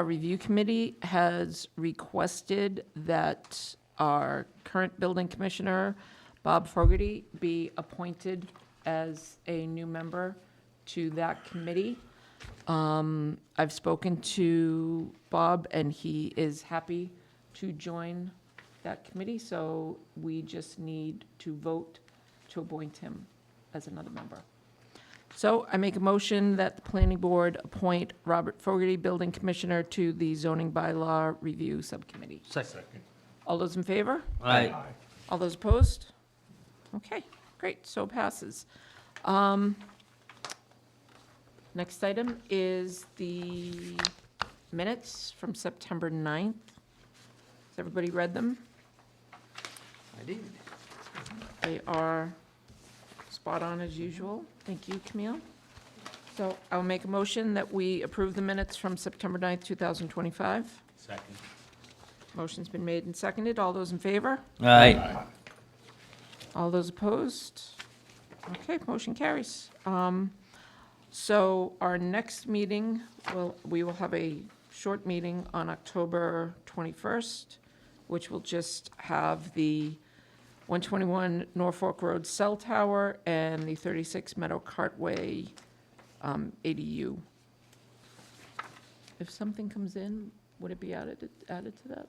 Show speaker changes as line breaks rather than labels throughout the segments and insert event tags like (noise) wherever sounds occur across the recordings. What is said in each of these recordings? a review committee has requested that our current building commissioner, Bob Fogarty, be appointed as a new member to that committee. Um, I've spoken to Bob, and he is happy to join that committee, so we just need to vote to appoint him as another member. So I make a motion that the planning board appoint Robert Fogarty, building commissioner, to the zoning bylaw review subcommittee.
Second.
All those in favor?
Aye.
All those opposed? Okay, great, so passes. Um, Next item is the minutes from September 9th. Has everybody read them?
I did.
They are spot on as usual. Thank you, Camille. So I'll make a motion that we approve the minutes from September 9th, 2025.
Second.
Motion's been made and seconded. All those in favor?
Aye.
All those opposed? Okay, motion carries. Um, So our next meeting, well, we will have a short meeting on October 21st, which will just have the 121 Norfolk Road Cell Tower and the 36 Meadow Cartway um, ADU. If something comes in, would it be added, added to that?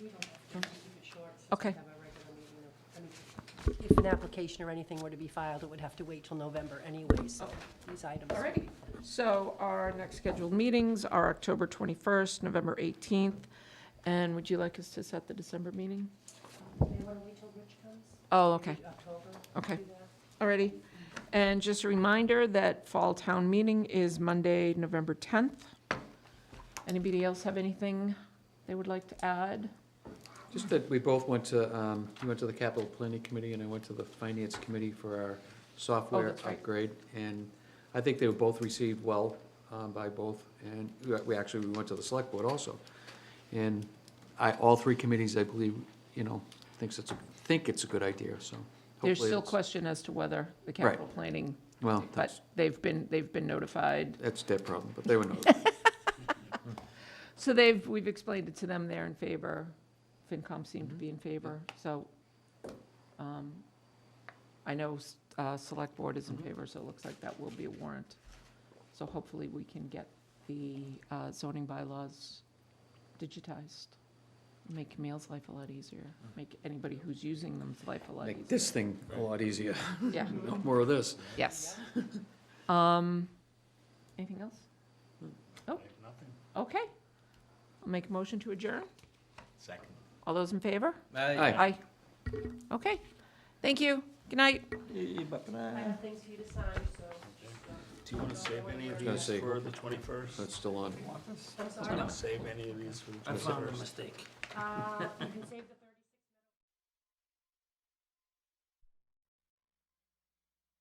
We don't have to keep it short. since we
Okay.
have a regular meeting of- I mean, If an application or anything were to be filed, it would have to wait till November anyway, so these items.
All righty. So our next scheduled meetings are October 21st, November 18th, and would you like us to set the December meeting?
They want to wait till Rich comes?
Oh, okay,
October?
okay,
do that?
all righty. And just a reminder that Fall Town Meeting is Monday, November 10th. Anybody else have anything they would like to add?
Just that we both went to, um, you went to the capital planning committee and I went to the finance committee for our software
that's right.
upgrade. And I think they were both received well, um, by both. And we- we actually, we went to the select board also. And I, all three committees, I believe, you know, thinks it's, a- think it's a good idea, so.
There's
hopefully
still
it's-
question as to whether the
Right.
capital planning,
Well,
but
that's,
they've been, they've been notified.
that's their problem, but they
(laughs)
were not.
So they've, we've explained it to them, they're in favor. FinCom seemed to be in favor, so um, I know s- uh, Select Board is in
Mhm.
favor, so it looks like that will be a warrant. So hopefully we can get the uh, zoning bylaws digitized. Make Camille's life a lot easier, make anybody who's using them's life a lot
Make
easier.
this thing a lot easier. (laughs)
Yeah,
No more of this.
yes. Um, Anything else? Oh.
Nothing.
Okay. I'll make a motion to adjourn.
Second.
All those in favor?
Aye.
Aye. Okay. Thank you. Good night.
I have things for you to sign, so.
Do you want to save any of
Gonna
these
say-
for the twenty-first?
That's still
I'm
on.
Do you
sorry.
want to save any of these for the
I
twenty-first?
found a mistake.
Uh, You can save the. third-